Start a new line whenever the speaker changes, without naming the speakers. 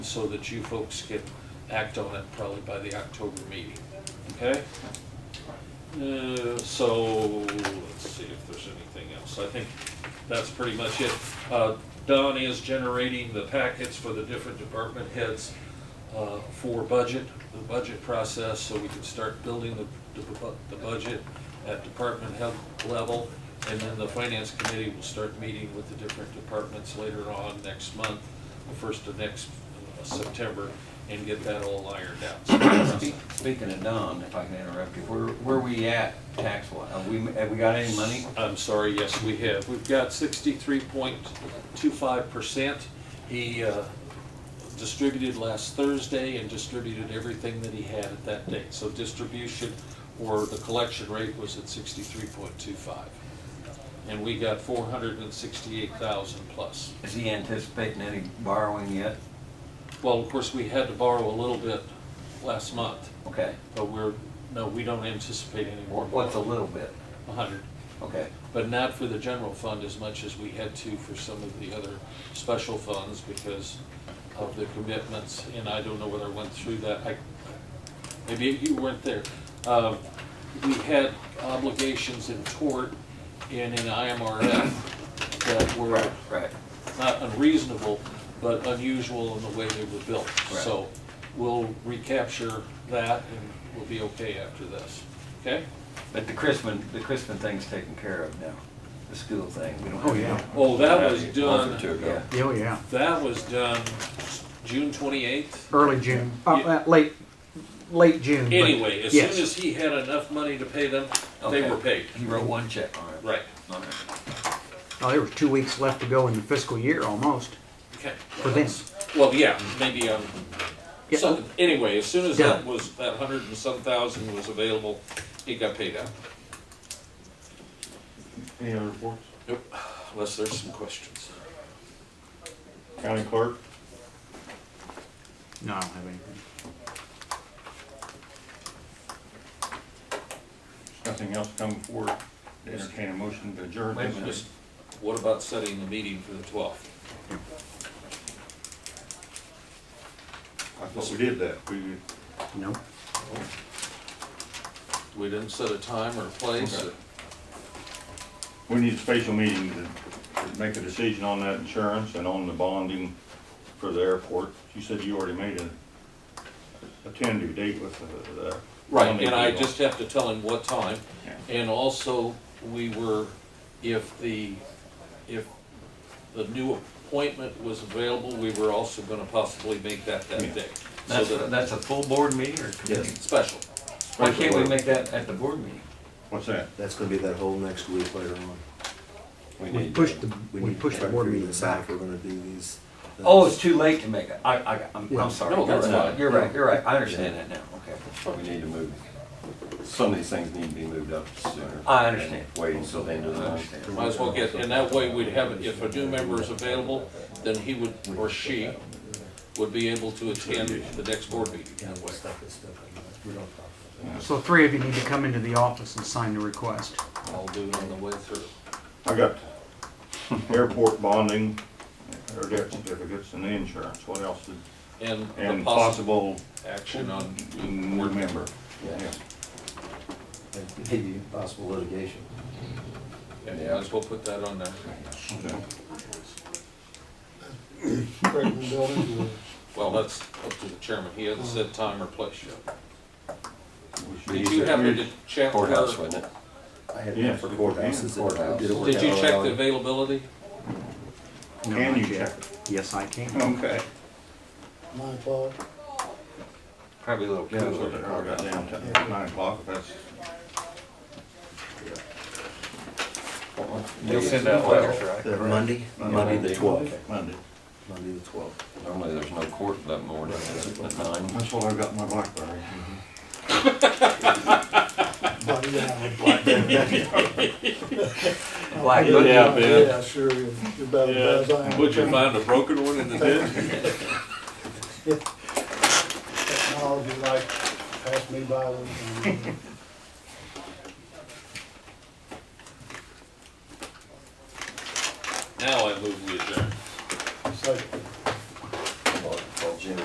so that you folks can act on it probably by the October meeting, okay? Uh, So, let's see if there's anything else. I think that's pretty much it. Uh, Don is generating the packets for the different department heads uh, for budget, the budget process, so we can start building the, the bu- the budget at department head level. And then the finance committee will start meeting with the different departments later on next month, the first of next uh, September, and get that all ironed out. So
Speak- Speaking of Don, if I can interrupt you, where, where we at tax wise? Have we, have we got any money?
I'm sorry, yes, we have. We've got sixty-three point two-five percent. He uh, distributed last Thursday and distributed everything that he had at that date. So distribution or the collection rate was at sixty-three point two-five. And we got four hundred and sixty-eight thousand plus.
Is he anticipating any borrowing yet?
Well, of course, we had to borrow a little bit last month,
Okay,
but we're, no, we don't anticipate any more.
what's a little bit?
A hundred.
Okay,
but not for the general fund as much as we had to for some of the other special funds because of the commitments, and I don't know whether I went through that, I, maybe you weren't there. Um, We had obligations in tort and in IMRF that were
right, right.
not unreasonable, but unusual in the way they were built.
Right.
So we'll recapture that and we'll be okay after this, okay?
But the Crispin, the Crispin thing's taken care of now, the school thing, we don't.
Oh, yeah.
Oh, that was
Month or
done.
two ago.
Yeah, Oh, yeah.
That was done June twenty-eighth.
Early June, uh,
Yeah.
uh, late, late June. but
Anyway, as soon
yes.
as he had enough money to pay them, they
Okay.
were paid.
He wrote one check on it.
Right.
All right.
Oh, there was two weeks left to go in the fiscal year almost.
Okay.
For them.
Well, yeah, maybe, um,
Yeah.
so, anyway, as soon as that
Done.
was, that hundred and some thousand was available, he got paid out.
Any other reports?
Nope, unless there's some questions.
County clerk?
No, I don't have anything.
Nothing else come forward. Entertain a motion to adjourn.
Wait a minute.
Just, what about setting the meeting for the twelfth?
I thought we did that. We,
Nope.
We didn't set a time or a place, or,
Okay. we need a special meeting to to make a decision on that insurance and on the bonding for the airport. You said you already made a, a tentative date with the- the.
right,
bonding
and I
people.
just have to tell him what time.
Yeah.
And also, we were, if the, if the new appointment was available, we were also gonna possibly make that that
Yeah.
day. So
That's, a-
that,
that's a full board meeting or committee?
special.
Why can't we make that at the board meeting?
What's that?
That's gonna be that whole next week later on.
We pushed the, we
need to
pushed the
try to
board
figure
meeting
this out
back.
If we're gonna do these.
Oh, it's too late to make it, I, I, I'm,
Yeah.
I'm sorry.
No, that's
You're right.
fine.
You're right, you're right, I understand that now, okay.
We need to move, some of these things need to be moved up sooner.
I understand.
than Wait until the end of
I
the
understand.
Might as well get, and that way we'd have, it. if a new member is available, then he would, or she, would be able to attend the next board meeting
Yeah,
that way.
stuff is stuff like that. We don't talk about that.
So three of you need to come into the office and sign the request.
I'll do it on the way through.
I got airport bonding, or debt certificates and the insurance. What else? did-
And the
And
possible
possible
action on new
board
board
member.
Yeah.
And Maybe possible litigation.
Yeah, might as well put that on there.
Okay.
Well, that's up to the chairman. He hasn't said time or place yet.
We should-
Did you happen to check where?
Courthouse, wasn't it?
I had
Yeah.
one for courthouses. that I did it
Courthouse.
work
Did you
out
check
well.
the availability?
No,
Can
not
you Oh,
yet.
check it?
Yes, I can.
Okay.
My fault.
Probably a little
Yeah, that's
cooler.
what
than
I got
ours.
down to nine o'clock, if that's.
You'll send out letters, right?
The Monday, Monday the twelfth,
Monday.
Monday the twelfth.
Normally, there's no court that morning, at nine.
That's what I got in my blackberry.
Black
Yeah,
Monday.
Yeah, man.
Yeah, sure, you're about as bad as I am.
Would you find a broken one in the bin?
Technology like passed me by. with, um,